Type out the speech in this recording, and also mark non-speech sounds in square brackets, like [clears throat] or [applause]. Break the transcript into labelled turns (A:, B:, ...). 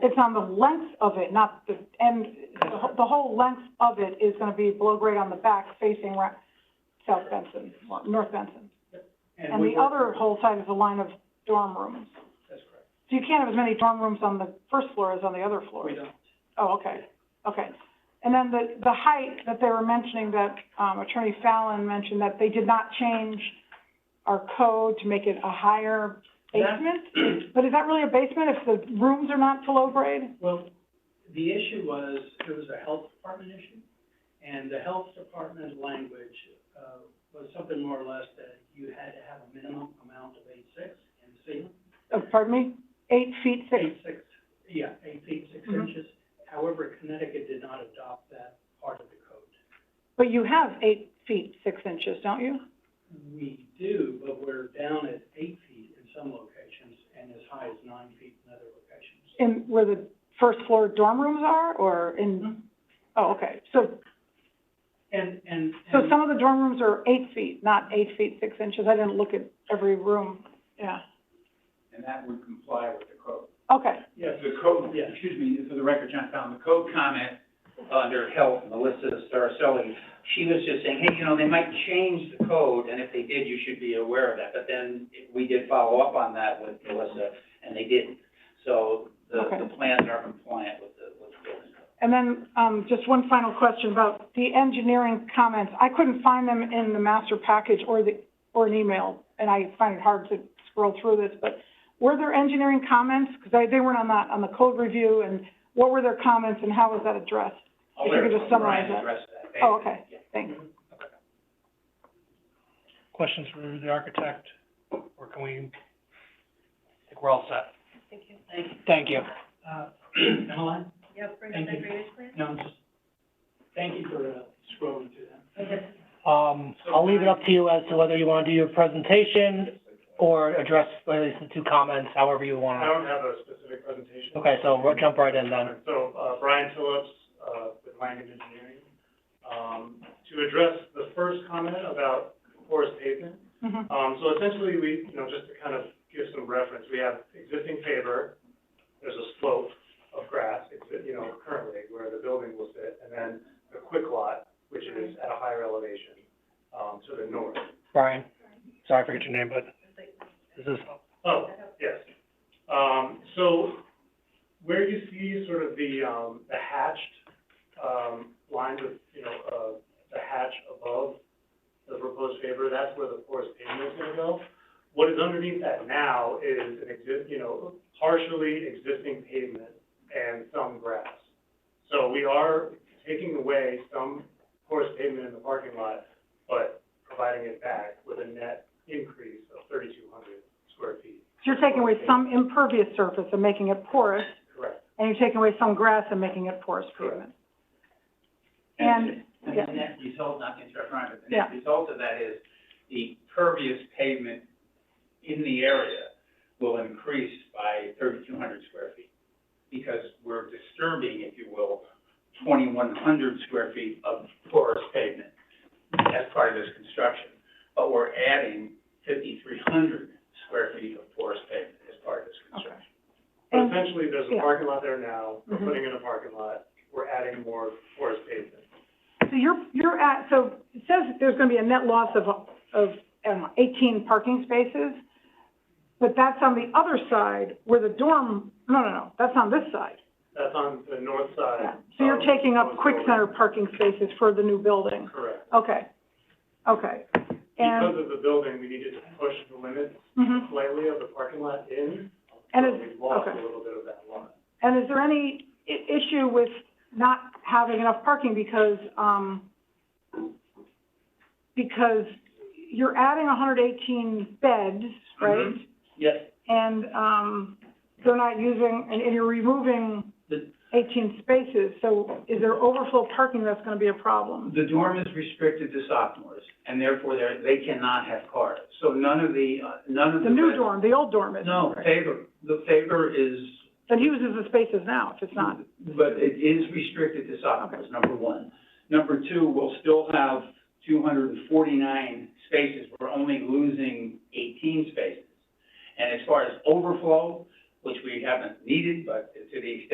A: It's on the length of it, not the, and the wh- the whole length of it is gonna be below grade on the back facing ra- South Benson, or North Benson. And
B: we
A: the
B: were-
A: other whole side is a line of dorm rooms.
B: That's correct.
A: So you can't have as many dorm rooms on the first floor as on the other floor.
B: We don't.
A: Oh, okay, okay. And then the, the height that they were mentioning, that, um, Attorney Fallon mentioned, that they did not change our code to make it a higher basement? But is that really a basement if the rooms are not below grade?
B: [clears throat] Well, the issue was, it was a health department issue, and the health department language, uh, was something more or less that you had to have a minimum amount of eight six and see.
A: Uh, pardon me? Eight feet, six,
B: Eight six, yeah, eight feet, six
A: Mhm.
B: inches. However, Connecticut did not adopt that part of the code.
A: but you have eight feet, six inches, don't you?
B: We do, but we're down at eight feet in some locations and as high as nine feet in other locations.
A: In, where the first floor dorm rooms are, or in, oh, okay. So,
B: And, and.
A: so
B: and-
A: some of the dorm rooms are eight feet, not eight feet, six inches. I didn't look at every room, yeah.
C: and that would comply with the code.
A: Okay,
B: Yes,
C: The code,
B: Yeah.
C: excuse me, for the record, John found the code comment under health, Melissa Saraselli, she was just saying, hey, you know, they might change the code, and if they did, you should be aware of that. But then we did follow up on that with Melissa, and they didn't. So the,
A: Okay.
C: the plans are compliant with the, with the building code.
A: and then, um, just one final question about the engineering comments. I couldn't find them in the master package or the, or an email, and I find it hard to scroll through this, but were there engineering comments? Because I, they weren't on that, on the code review, and what were their comments and how was that addressed? If you could just summarize
C: Oh, Brian
A: that.
C: addressed that.
A: Oh, okay,
C: Yeah.
A: thanks.
D: questions for the architect, or can we, I think we're all set. Thank you.
B: uh, [clears throat] Emmeline?
E: Yeah, bring
B: Thank
E: the
B: you.
E: drainage plan?
B: No, just, thank you for uh, scrolling through that.
D: Um, I'll leave it up to you as to whether you wanna do your presentation or address at least the two comments, however you
F: I
D: wanna.
F: don't have a specific presentation.
D: Okay, so we'll jump right in then.
F: So, uh, Brian Phillips, uh, with Langen Engineering. Um, to address the first comment about porous pavement,
A: Mhm.
F: um, so essentially, we, you know, just to kind of give some reference, we have existing paver, there's a slope of grass, exi- you know, currently where the building will sit, and then the quick lot, which is at a higher elevation, um, to the north.
D: Brian, sorry I forget your name, but this is,
F: Oh, yes. Um, so where you see sort of the, um, the hatched, um, lines of, you know, uh, the hatch above the proposed paver, that's where the porous pavement is gonna go. What is underneath that now is an exist, you know, partially existing pavement and some grass. So we are taking away some porous pavement in the parking lot, but providing it back with a net increase of thirty-two hundred square feet.
A: So you're taking away some impervious surface and making it porous,
F: Correct.
A: and you're taking away some grass and making it porous
F: Correct.
A: pavement.
C: And, and
A: yeah.
C: the net result, not to interrupt Ryan, but the
A: Yeah.
C: net result of that is the pervious pavement in the area will increase by thirty-two hundred square feet. Because we're disturbing, if you will, twenty-one hundred square feet of porous pavement as part of this construction. But we're adding fifty-three hundred square feet of porous pavement as part of this construction.
F: But
A: And-
F: essentially, there's a
A: Um, yeah.
F: parking lot there now, we're
A: Mhm.
F: putting in a parking lot, we're adding more porous pavement.
A: So you're, you're at, so it says that there's gonna be a net loss of, of, I don't know, eighteen parking spaces, but that's on the other side where the dorm, no, no, no, that's on this side.
F: That's on the north
A: Yeah.
F: side.
A: So you're
F: of
A: taking up
F: the
A: Quick Center
F: building.
A: parking spaces for the new building.
F: Correct.
A: Okay, okay.
F: Because
A: And,
F: of the building, we needed to push the limits
A: mhm.
F: slightly of the parking lot in,
A: and
F: so
A: is,
F: we lost a
A: okay.
F: little bit of that lot.
A: And is there any i- issue with not having enough parking because, um, because you're adding hundred eighteen beds, right?
C: Mhm. Yes,
A: And, um, they're not using, and, and you're removing
C: The-
A: eighteen spaces, so is there overflow parking that's gonna be a problem?
C: The dorm is restricted to sophomores, and therefore they're, they cannot have cars. So none of the, uh, none of the.
A: The new dorm, the old dorm is,
C: No,
A: right?
C: favor, the favor is.
A: That uses the spaces now, if it's not,
C: But it is restricted to sophomores, number one. Number two, we'll still have two hundred and forty-nine spaces. We're only losing eighteen spaces. And as far as overflow, which we haven't needed, but to the extent